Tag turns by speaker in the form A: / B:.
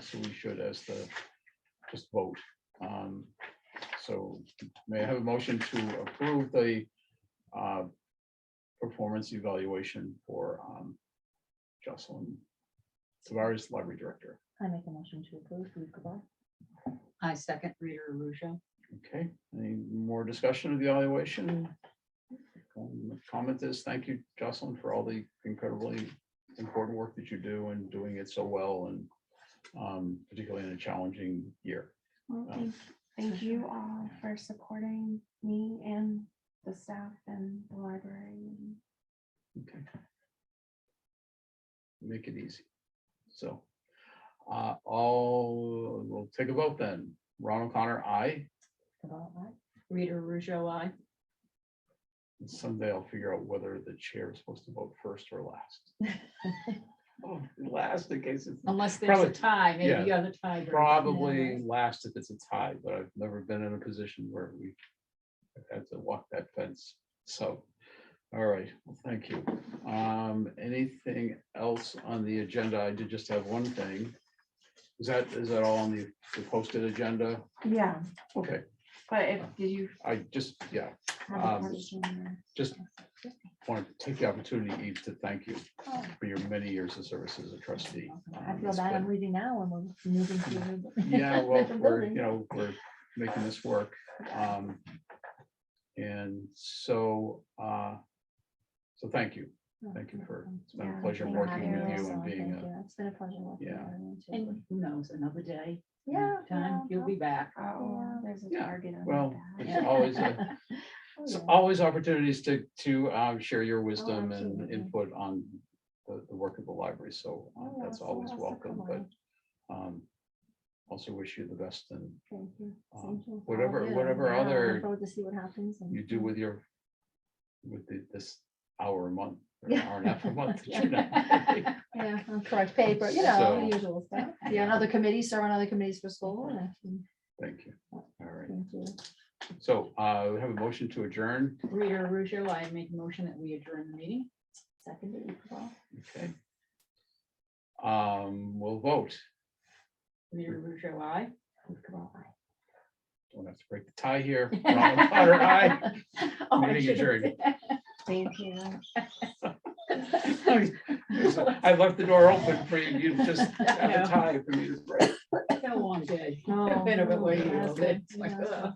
A: so we should as the, just vote. Um, So may I have a motion to approve the uh, performance evaluation for um, Jocelyn Tavares, Library Director?
B: I make a motion to approve. Ruth Cobar.
C: I second Rita Russo.
A: Okay, any more discussion of the evaluation? Um, Comment is, thank you, Jocelyn, for all the incredibly important work that you do and doing it so well and um, particularly in a challenging year.
D: Well,
A: Um,
D: thank, thank you all for supporting me and the staff and the library. and
A: Okay. Make it easy. So uh, all, we'll take a vote then. Ron O'Connor, aye.
B: Cobar, aye.
C: Rita Russo, I.
A: Someday I'll figure out whether the chair is supposed to vote first or last. Oh, Last in case it's
C: Unless there's a
A: Probably-
C: tie,
A: yeah.
C: maybe you're the tie.
A: probably last if it's a tie, but I've never been in a position where we had to walk that fence. So, all right, well, thank you. Um, anything else on the agenda? I did just have one thing. Is that, is that all on the the posted agenda?
D: Yeah,
A: Okay,
D: but if, did you
A: I just, yeah,
D: have
A: Um,
D: a question? or-
A: just want to take the opportunity, Eve, to thank you
B: Oh,
A: for your many years of service as a trustee.
B: I
A: Um,
B: feel
A: it's
B: bad
A: been-
B: I'm leaving now and we're moving to. a new-
A: Yeah, well,
B: different
A: we're,
B: building.
A: you know, we're making this work. Um And so, uh so thank you. Thank you for, it's been a
D: Yeah,
A: pleasure
D: thank
A: working with
D: you.
A: you and being, a-
B: It's been a pleasure. working
A: Yeah.
B: with everyone, too.
C: And who knows, another day.
B: Yeah,
C: another Time,
B: yeah,
C: you'll be back.
D: Oh, there's a
A: Yeah,
D: target on
A: well,
D: my back.
A: there's always, a-
B: Oh,
A: it's
B: yeah.
A: always opportunities to, to um, share your wisdom and
B: absolutely.
A: input on the, the work of the library. So uh,
B: Oh, yeah,
A: that's
B: someone
A: always
B: has to
A: welcome,
B: come
A: but
B: on.
A: um also wish you the best and
B: Thank you.
A: um,
B: Same to you.
A: whatever-
B: Oh, yeah,
A: whatever
B: yeah, I'm looking
A: other
B: Forward to see what happens. and-
A: you do with your, with the- this hour a month, or
B: Yeah.
A: hour and a half a month. that you're not-
C: Yeah.
B: Yeah, I'll correct paper, you know,
A: So-
B: the usual stuff. Yeah, another committee, serve on other committees for school. and I can-
A: Thank you. All right.
B: thank you.
A: So uh, we have a motion to adjourn.
C: Rita Russo, I make a motion that we adjourn the meeting.
B: Seconded. well,
A: Okay. Um, we'll vote.
C: Rita Russo, I.
B: we've come all right.
A: Don't have to break the tie here. Ronald Potter, aye.
C: Oh, I
A: Meeting
C: should have
A: adjourned.
C: said-
D: Thank you.
A: I left the door open for you. You just have a tie for me to break.
C: Been a long day.
B: Oh,
C: Been a bit
B: no,
C: way.
B: that's
C: It's like,
B: good.
C: ugh.